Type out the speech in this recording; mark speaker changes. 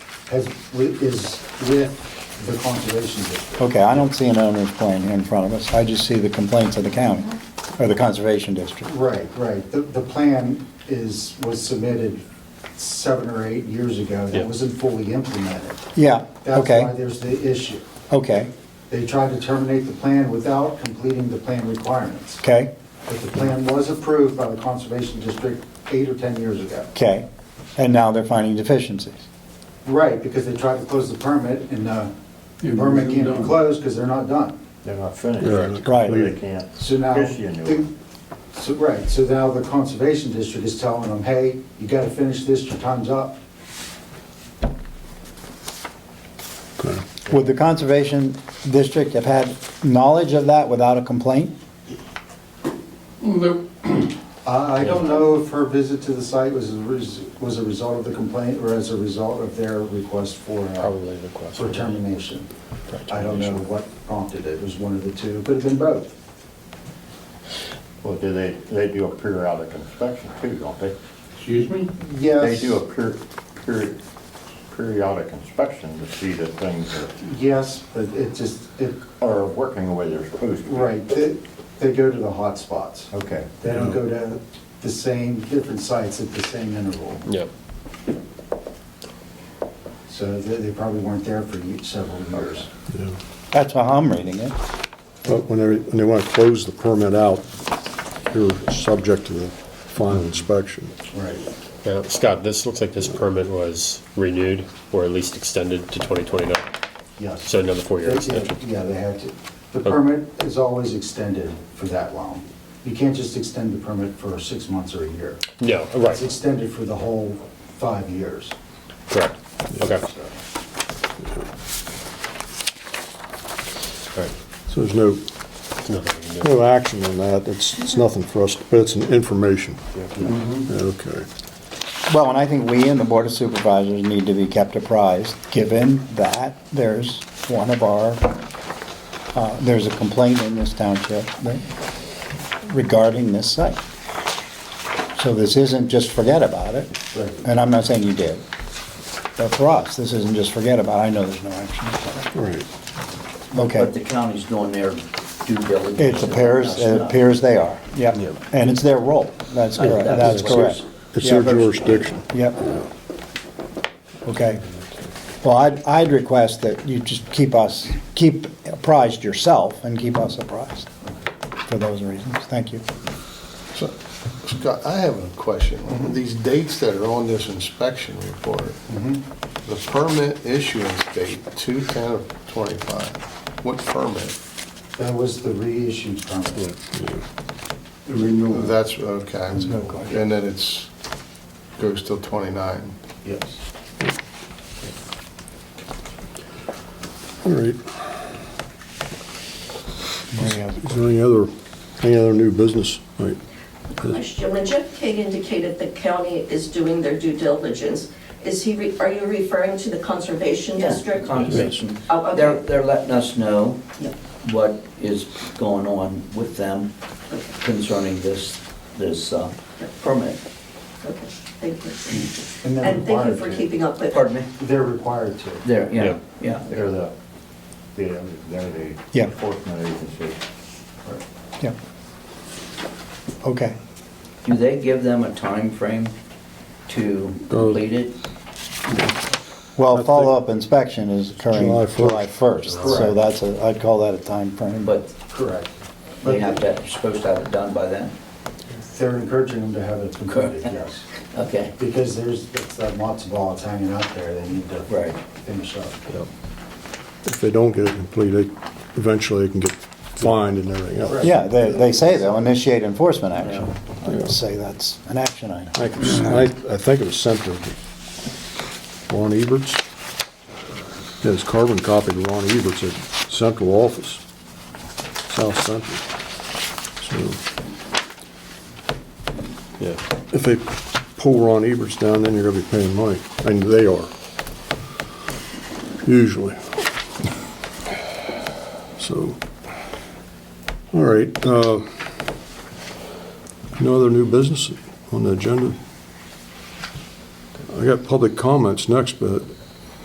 Speaker 1: has, wi- is with the conservation district.
Speaker 2: Okay, I don't see an owner's plan here in front of us. I just see the complaints of the county, or the conservation district.
Speaker 1: Right, right. The, the plan is, was submitted seven or eight years ago.
Speaker 3: Yeah.
Speaker 1: It wasn't fully implemented.
Speaker 2: Yeah,
Speaker 1: That's why
Speaker 2: okay,
Speaker 1: there's the issue.
Speaker 2: okay,
Speaker 1: They tried to terminate the plan without completing the plan requirements.
Speaker 2: okay,
Speaker 1: But the plan was approved by the Conservation District eight or 10 years ago.
Speaker 2: okay. And now they're finding deficiencies.
Speaker 1: Right, because they tried to close the permit, and uh, the
Speaker 4: Yeah,
Speaker 1: permit
Speaker 4: they're
Speaker 1: can't be
Speaker 4: done.
Speaker 1: closed because they're not done.
Speaker 5: They're not finished.
Speaker 4: Right.
Speaker 2: Right.
Speaker 5: They can't.
Speaker 1: So now,
Speaker 5: Issue a new
Speaker 1: the-
Speaker 5: one.
Speaker 1: so, right, so now the Conservation District is telling them, hey, you got to finish this, your time's up.
Speaker 2: Would the conservation district have had knowledge of that without a complaint?
Speaker 4: Well, there-
Speaker 1: I I don't know if her visit to the site was, a res- was a result of the complaint or as a result of their request for, uh,
Speaker 5: Probably request.
Speaker 1: for termination. I don't know what prompted it, it was one of the two, could have been both.
Speaker 5: Well, do they, they do a periodic inspection too, don't they?
Speaker 4: Excuse me?
Speaker 5: They
Speaker 1: Yes.
Speaker 5: do a per, per, periodic inspection to see that things are,
Speaker 1: Yes, but it just, it,
Speaker 5: are working the way they're supposed to. be.
Speaker 1: right, they, they go to the hot spots.
Speaker 5: Okay.
Speaker 1: They don't go to the same, different sites at the same interval.
Speaker 3: Yep.
Speaker 1: So they, they probably weren't there for ye- several years.
Speaker 6: Yeah.
Speaker 2: That's how I'm reading it.
Speaker 6: But when they, when they want to close the permit out, you're subject to the final inspection.
Speaker 1: Right.
Speaker 3: Now, Scott, this looks like this permit was renewed or at least extended to 2029,
Speaker 1: Yes.
Speaker 3: so another four-year
Speaker 1: They-
Speaker 3: extension.
Speaker 1: Yeah, they had to. The permit is always extended for that long. You can't just extend the permit for six months or a year.
Speaker 3: No,
Speaker 1: It's
Speaker 3: right,
Speaker 1: extended for the whole five years.
Speaker 3: correct, okay, all
Speaker 1: So,
Speaker 3: right.
Speaker 6: So there's no,
Speaker 3: There's nothing we can do.
Speaker 6: no action on that. It's, it's nothing for us, but it's an information.
Speaker 2: Mm-hmm.
Speaker 6: Okay.
Speaker 2: Well, and I think we and the Board of Supervisors need to be kept apprised, given that there's one of our, uh, there's a complaint in this township regarding this site. So this isn't just forget about it,
Speaker 1: Right.
Speaker 2: and I'm not saying you did. But for us, this isn't just forget about, it. I know there's no action.
Speaker 6: All right.
Speaker 7: But the
Speaker 2: Okay,
Speaker 7: county's doing their due diligence.
Speaker 2: it appears, it appears they are, yep, and it's their role, that's correct, that's correct.
Speaker 6: It's their
Speaker 2: Yeah, but-
Speaker 6: jurisdiction.
Speaker 2: Yep. Okay. Well, I'd, I'd request that you just keep us, keep apprised yourself and keep us apprised for those reasons. Thank you.
Speaker 8: So, Scott, I have a question. These dates that are on this inspection report, the permit issuance date, 210 of 25, what permit?
Speaker 1: That was the reissued permit.
Speaker 4: Renewal.
Speaker 8: That's, okay.
Speaker 1: no question.
Speaker 8: And then it's, goes till 29.
Speaker 1: Yes.
Speaker 6: All right.
Speaker 2: Any other-
Speaker 6: Is there any other, any other new business? All right.
Speaker 9: Question, when Jeff King indicated the county is doing their due diligence, is he, re- are you referring to the conservation district?
Speaker 7: Conservation.
Speaker 9: Oh, okay.
Speaker 7: They're, they're letting us know
Speaker 9: Yep.
Speaker 7: what is going on with them concerning this, this uh, permit.
Speaker 9: Okay, thank you.
Speaker 1: And they're
Speaker 9: And thank you
Speaker 1: required
Speaker 9: for
Speaker 1: to.
Speaker 9: keeping up with.
Speaker 7: Pardon me?
Speaker 1: They're required to.
Speaker 7: There,
Speaker 3: Yeah.
Speaker 7: yeah, yeah.
Speaker 5: They're the, they're, they're the
Speaker 2: Yeah.
Speaker 5: enforcement agency.
Speaker 2: Yeah. Okay.
Speaker 7: Do they give them a time frame to complete it?
Speaker 2: Well, follow-up inspection is occurring
Speaker 6: July first.
Speaker 2: July 1st, so
Speaker 1: Correct.
Speaker 2: that's a, I'd call that a time frame.
Speaker 7: But
Speaker 1: Correct.
Speaker 7: they have to, supposed to have it done by then?
Speaker 1: They're encouraging them to have it completed, yes.
Speaker 7: Okay,
Speaker 1: Because there's, that's that matzo ball that's hanging out there, they need to
Speaker 7: Right.
Speaker 1: finish up.
Speaker 6: If they don't get it completed, eventually they can get fined and everything else.
Speaker 2: Yeah, they, they say they'll initiate enforcement action. I would say that's an action item.
Speaker 6: I think it was- I, I think it was sent to Ron Eberts. Yeah, It's carbon copied to Ron Eberts at central office, south central. So
Speaker 3: Yeah.
Speaker 6: if they pull Ron Eberts down, then you're gonna be paying money, and they are, usually. So, all right, uh, no other new business on the agenda? I got public comments next, but